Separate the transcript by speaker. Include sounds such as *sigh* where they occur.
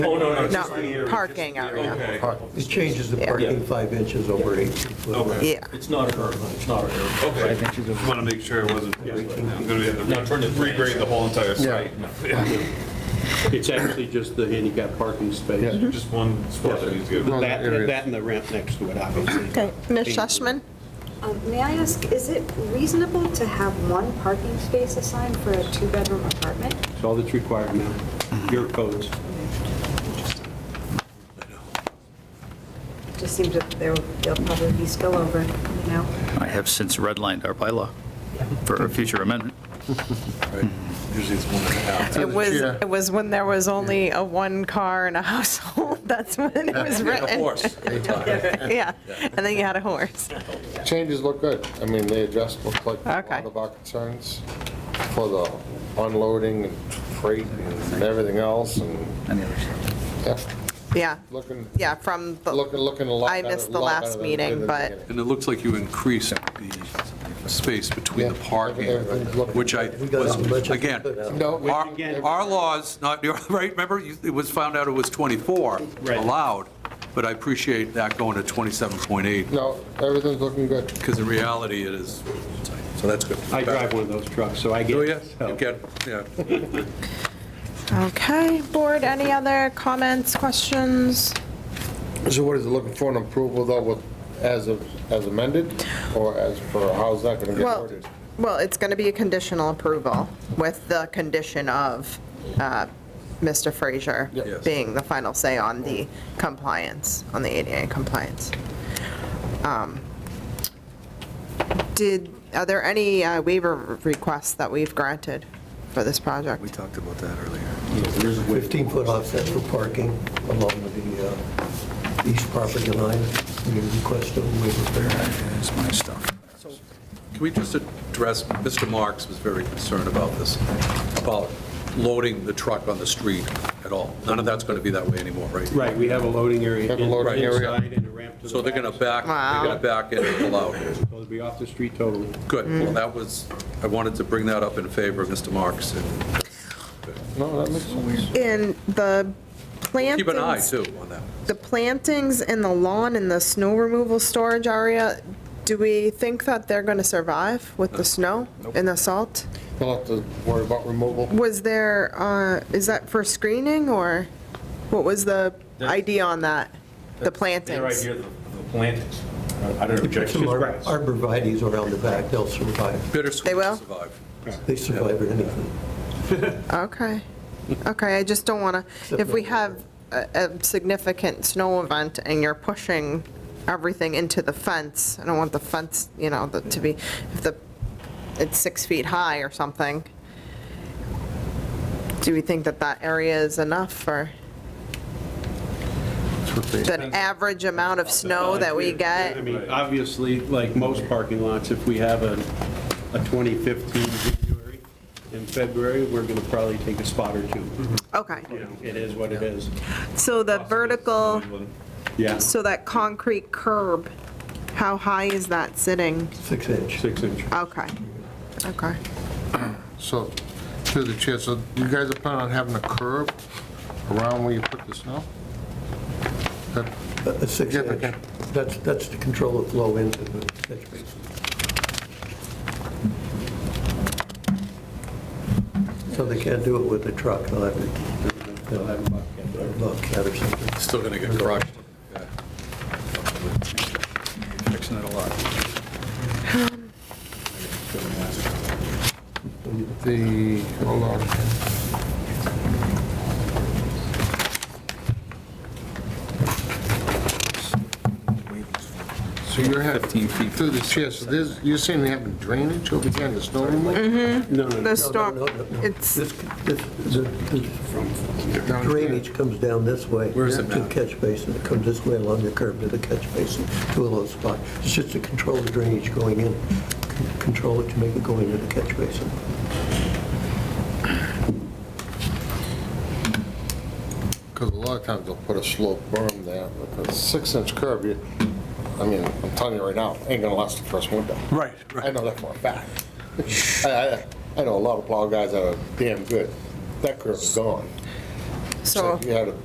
Speaker 1: Oh,
Speaker 2: No,
Speaker 1: just the area, just
Speaker 2: parking
Speaker 1: the
Speaker 2: area.
Speaker 1: Okay,
Speaker 3: It changes the
Speaker 2: Yeah.
Speaker 3: parking five inches over 18 foot.
Speaker 1: okay,
Speaker 2: Yeah,
Speaker 4: It's not a curb, it's not a curb.
Speaker 1: okay. Just want to make sure it wasn't, I'm going to have to regrade the whole entire site. *laughs* Yeah.
Speaker 4: It's actually just the handicap parking space.
Speaker 1: Just one spot that he's good.
Speaker 5: Well,
Speaker 4: That,
Speaker 5: Area.
Speaker 4: that and the ramp next to it, obviously.
Speaker 2: okay. Ms. Sussman?
Speaker 6: Um, May I ask, is it reasonable to have one parking space assigned for a two-bedroom apartment?
Speaker 4: It's all that's required now, your codes.
Speaker 6: It just seems that there- there'll probably be spillover, you know?
Speaker 7: I have since redlined our bylaw for a future amendment.
Speaker 5: Usually it's one and a half.
Speaker 2: It was,
Speaker 5: Chair.
Speaker 2: it was when there was only a one car in a household, *laughs* that's when it was written. *laughs* Yeah, and then you had a horse.
Speaker 5: Changes look good. I mean, they addressed, look like a
Speaker 2: Okay.
Speaker 5: lot of our concerns for the unloading and freight and everything else and,
Speaker 7: Any other stuff?
Speaker 5: yeah,
Speaker 2: Yeah,
Speaker 5: looking,
Speaker 2: yeah, from
Speaker 5: looking,
Speaker 2: the,
Speaker 5: looking a lot
Speaker 2: I
Speaker 5: better-
Speaker 2: missed the
Speaker 5: lot better
Speaker 2: last
Speaker 5: than it did in
Speaker 2: meeting,
Speaker 5: the
Speaker 2: but-
Speaker 5: beginning.
Speaker 8: And it looks like you increased the space between the
Speaker 5: Yeah.
Speaker 8: parking,
Speaker 5: Everything's looking-
Speaker 8: which I
Speaker 3: We got as much
Speaker 8: was,
Speaker 3: as-
Speaker 8: again,
Speaker 5: No, we-
Speaker 8: our, our laws, not, *laughs* your- right, remember, you- it was found out it was 24
Speaker 4: Right.
Speaker 8: allowed, but I appreciate that going to 27.8,
Speaker 5: No, everything's looking good.
Speaker 8: because in reality, it is, so that's good.
Speaker 4: I drive one of those trucks, so I get.
Speaker 8: Do
Speaker 4: it.
Speaker 8: you? You get, yeah.
Speaker 2: okay. Board, any other comments, questions?
Speaker 5: So what is it looking for an approval though with, as of, as amended or as for, how's that going to get
Speaker 2: Well,
Speaker 5: ordered?
Speaker 2: well, it's going to be a conditional approval with the condition of uh, Mr. Frazier
Speaker 8: Yes.
Speaker 2: being the final say on the compliance, on the ADA compliance. Um, Did, are there any uh, waiver requests that we've granted for this project?
Speaker 8: We talked about that earlier.
Speaker 3: 15 foot offset for parking along the uh, east property line. We request a waiver there.
Speaker 7: That's my stuff.
Speaker 8: Can we just address, Mr. Marks was very concerned about this, about loading the truck on the street at all. None of that's going to be that way anymore, right?
Speaker 4: Right, we have a loading area
Speaker 5: Have a loading
Speaker 4: in-
Speaker 5: area.
Speaker 4: inside and a ramp to the back.
Speaker 8: So they're going to back, they're going to back in and allow it.
Speaker 4: So It'll be off the street totally.
Speaker 8: Good. Well, that was, I wanted to bring that up in favor of Mr. Marks.
Speaker 5: No, that makes sense.
Speaker 2: In the
Speaker 8: Keep an eye,
Speaker 2: plantings,
Speaker 8: too, on that.
Speaker 2: the plantings in the lawn and the snow removal storage area, do we think that they're going to survive with the snow and the salt?
Speaker 5: We'll have to worry about removal.
Speaker 2: Was there, uh, is that for screening or what was the idea on that? The
Speaker 1: Their
Speaker 2: plantings?
Speaker 1: idea of the the plantings, I don't object
Speaker 3: Some
Speaker 1: to
Speaker 3: ar-
Speaker 4: grass.
Speaker 3: arborvitae's around the back, they'll survive.
Speaker 8: Bittersweet
Speaker 2: They will?
Speaker 8: to survive.
Speaker 3: They survive at anything.
Speaker 2: Okay. Okay, I just don't want to, if we have a a significant snow event and you're pushing everything into the fence, I don't want the fence, you know, the- to be, if the, it's six feet high or something. Do we think that that area is enough or the average amount of snow that we get?
Speaker 4: I mean, obviously, like most parking lots, if we have a, a 2015 January and February, we're going to probably take a spot or two.
Speaker 8: Mm-hmm.
Speaker 2: Okay,
Speaker 4: You know, it is what it is.
Speaker 2: so the vertical,
Speaker 4: Yeah,
Speaker 2: so that concrete curb, how high is that sitting?
Speaker 3: Six inch.
Speaker 4: six inch.
Speaker 2: Okay, okay.
Speaker 5: So, through the chair, so you guys are planning on having a curb around where you put the snow? That-
Speaker 3: A- A six
Speaker 5: Yeah,
Speaker 3: inch.
Speaker 5: okay.
Speaker 3: That's, that's to control the flow into the catch basin. So they can't do it with a truck, they'll have to, they'll have a bucket or something.
Speaker 8: Still going to get crushed. Yeah.
Speaker 7: Fixing it a lot.
Speaker 5: The, hold on. So you're having,
Speaker 7: 15 feet.
Speaker 5: through the chair, so there's, you're saying they're having drainage over there in the snow removal?
Speaker 4: No, no, no.
Speaker 2: The storm,
Speaker 3: No, no, no, no.
Speaker 2: it's,
Speaker 3: This, this, the the
Speaker 5: Down here?
Speaker 3: drainage comes down this way.
Speaker 8: Where's the
Speaker 3: To the
Speaker 8: map?
Speaker 3: catch basin, it comes this way along the curb to the catch basin, to a low spot. It's just to control the drainage going in, c- control it to make it go into the catch basin.
Speaker 5: Because a lot of times they'll put a slope berm there, but a six-inch curb, you, I mean, I'm telling you right now, ain't gonna last the first winter.
Speaker 8: Right,
Speaker 5: I know that for a fact. I, I, I know a lot of plow guys that are damn good. That curb's gone.
Speaker 2: so.
Speaker 5: You had a